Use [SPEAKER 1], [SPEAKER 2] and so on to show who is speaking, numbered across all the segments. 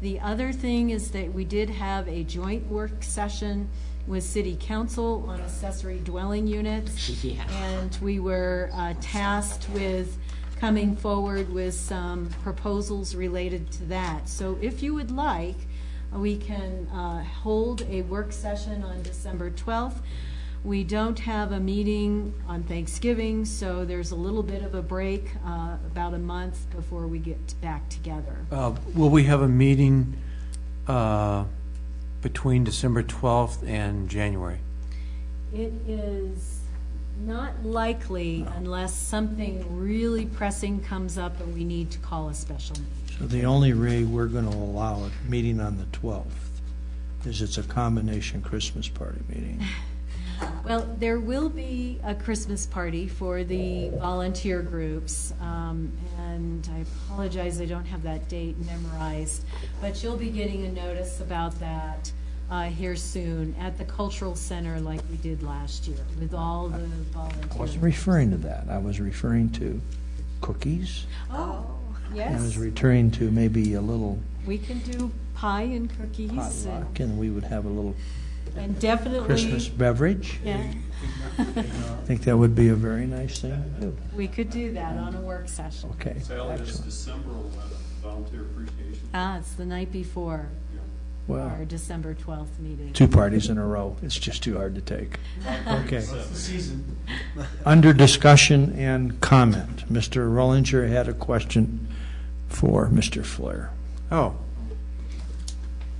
[SPEAKER 1] The other thing is that we did have a joint work session with city council on accessory dwelling units.
[SPEAKER 2] Yeah.
[SPEAKER 1] And we were uh, tasked with coming forward with some proposals related to that. So if you would like, we can uh, hold a work session on December 12th. We don't have a meeting on Thanksgiving, so there's a little bit of a break, uh, about a month before we get back together.
[SPEAKER 3] Uh, Will we have a meeting uh, between December 12th and January?
[SPEAKER 1] It is not likely unless something really pressing comes up and we need to call a special meeting.
[SPEAKER 4] So the only way we're going to allow a meeting on the 12th is it's a combination Christmas party meeting.
[SPEAKER 1] Well, there will be a Christmas party for the volunteer groups, um, and I apologize, I don't have that date memorized, but you'll be getting a notice about that uh, here soon at the Cultural Center like we did last year with all the volunteers.
[SPEAKER 4] I wasn't referring to that. I was referring to cookies.
[SPEAKER 1] Oh,
[SPEAKER 4] I was
[SPEAKER 1] yes,
[SPEAKER 4] referring to maybe a little
[SPEAKER 1] we can do pie and cookies and-
[SPEAKER 4] potluck, and we would have a little
[SPEAKER 1] and definitely.
[SPEAKER 4] Christmas beverage.
[SPEAKER 1] Yeah,
[SPEAKER 4] I think that would be a very nice thing to do.
[SPEAKER 1] we could do that on a work session.
[SPEAKER 4] Okay,
[SPEAKER 5] Sale is
[SPEAKER 4] excellent.
[SPEAKER 5] December 11th, volunteer appreciation.
[SPEAKER 1] Ah, it's the night before our
[SPEAKER 4] Well,
[SPEAKER 1] December 12th meeting.
[SPEAKER 4] two parties in a row, it's just too hard to take. Okay.
[SPEAKER 5] That's the season.
[SPEAKER 4] Under discussion and comment, Mr. Rollinger had a question for Mr. Flair.
[SPEAKER 3] Oh.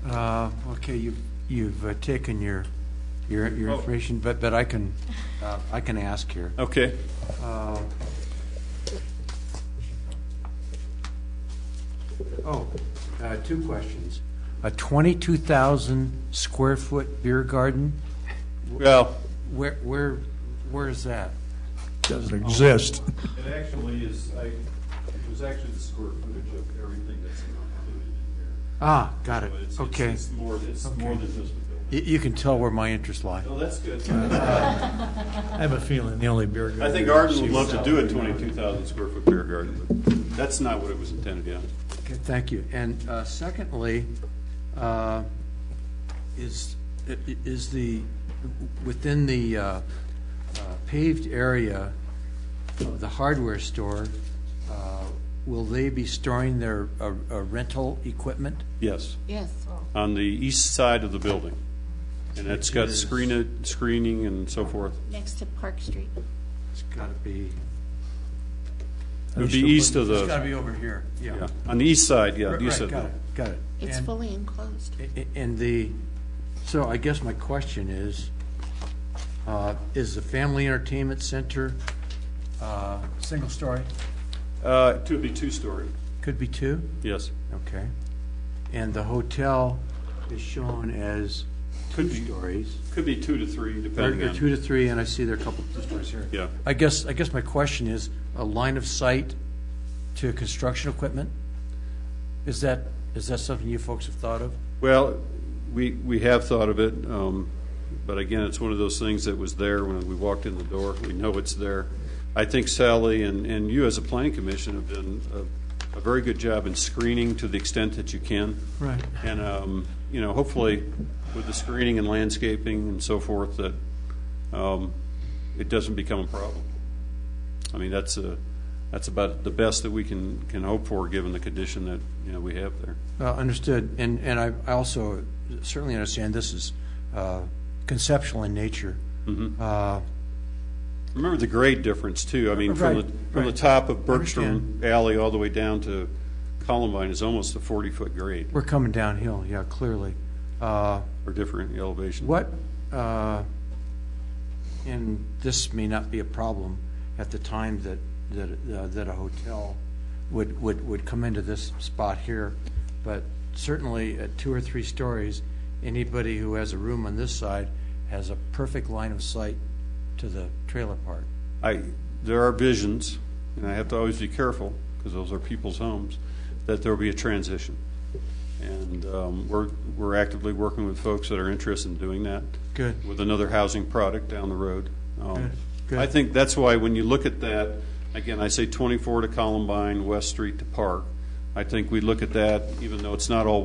[SPEAKER 3] Uh, Okay, you've, you've uh, taken your, your, your
[SPEAKER 5] Oh.
[SPEAKER 3] information, but, but I can, uh, I can ask here.
[SPEAKER 5] Okay.
[SPEAKER 3] Uh, Oh, uh, two questions. A 22,000 square foot beer garden,
[SPEAKER 5] Well,
[SPEAKER 3] where, where, where is that?
[SPEAKER 4] Doesn't exist.
[SPEAKER 5] it actually is, I, it was actually the square footage of everything that's not
[SPEAKER 3] Ah, got it,
[SPEAKER 5] included in here. But it's- it's-
[SPEAKER 3] okay.
[SPEAKER 5] It's more, it's more than just the building.
[SPEAKER 3] Y- You can tell where my interests lie.
[SPEAKER 5] No, that's good.
[SPEAKER 4] I have a feeling the only beer garden.
[SPEAKER 5] I think Arden would love to do a 22,000 square foot beer garden, but that's not what it was intended, yeah.
[SPEAKER 3] Okay, thank you. And uh, secondly, uh, is, i- i- is the, within the uh, uh, paved area of the hardware store, uh, will they be storing their uh, uh, rental equipment?
[SPEAKER 5] Yes,
[SPEAKER 2] Yes.
[SPEAKER 5] on the east side of the building. And it's got screen, screening and so forth.
[SPEAKER 2] Next to Park Street.
[SPEAKER 3] It's got to be,
[SPEAKER 5] It would be east of
[SPEAKER 3] it's got to
[SPEAKER 5] the,
[SPEAKER 3] be over here, yeah.
[SPEAKER 5] yeah, on the east side, yeah,
[SPEAKER 3] Right,
[SPEAKER 5] the east side.
[SPEAKER 3] Got it, got it.
[SPEAKER 2] It's
[SPEAKER 3] And-
[SPEAKER 2] fully enclosed.
[SPEAKER 3] A- And the, so I guess my question is, uh, is the Family Entertainment Center, uh, single story,
[SPEAKER 5] Uh, to be two-story,
[SPEAKER 3] could be two?
[SPEAKER 5] yes.
[SPEAKER 3] Okay. And the hotel is shown as two stories,
[SPEAKER 5] Could be two to three,
[SPEAKER 3] or
[SPEAKER 5] depending
[SPEAKER 3] or
[SPEAKER 5] on.
[SPEAKER 3] two to three, and I see there are a couple of stories here.
[SPEAKER 5] Yeah.
[SPEAKER 3] I guess, I guess my question is, a line of sight to construction equipment? Is that, is that something you folks have thought of?
[SPEAKER 5] Well, we, we have thought of it, um, but again, it's one of those things that was there when we walked in the door. We know it's there. I think Sally and, and you as a planning commission have done a, a very good job in screening to the extent that you can.
[SPEAKER 3] Right.
[SPEAKER 5] And, um, you know, hopefully with the screening and landscaping and so forth, that, um, it doesn't become a problem. I mean, that's a, that's about the best that we can, can hope for, given the condition that, you know, we have there.
[SPEAKER 3] Uh, Understood, and, and I I also certainly understand this is uh, conceptual in nature. Uh,
[SPEAKER 5] Remember the grade difference, too. I mean, from the,
[SPEAKER 3] Right,
[SPEAKER 5] from the
[SPEAKER 3] right.
[SPEAKER 5] top of Bergstrom Alley all the way down to Columbine is almost a 40-foot grade,
[SPEAKER 3] We're coming downhill, yeah, clearly. Uh,
[SPEAKER 5] or different elevation.
[SPEAKER 3] What, uh, and this may not be a problem at the time that, that, uh, that a hotel would, would, would come into this spot here, but certainly at two or three stories, anybody who has a room on this side has a perfect line of sight to the trailer park.
[SPEAKER 5] I, there are visions, and I have to always be careful, because those are people's homes, that there'll be a transition. And um, we're, we're actively working with folks that are interested in doing that.
[SPEAKER 3] Good.
[SPEAKER 5] With another housing product down the road. Um,
[SPEAKER 3] Good, good.
[SPEAKER 5] I think that's why when you look at that, again, I say 24 to Columbine, West Street to Park, I think we look at that, even though it's not all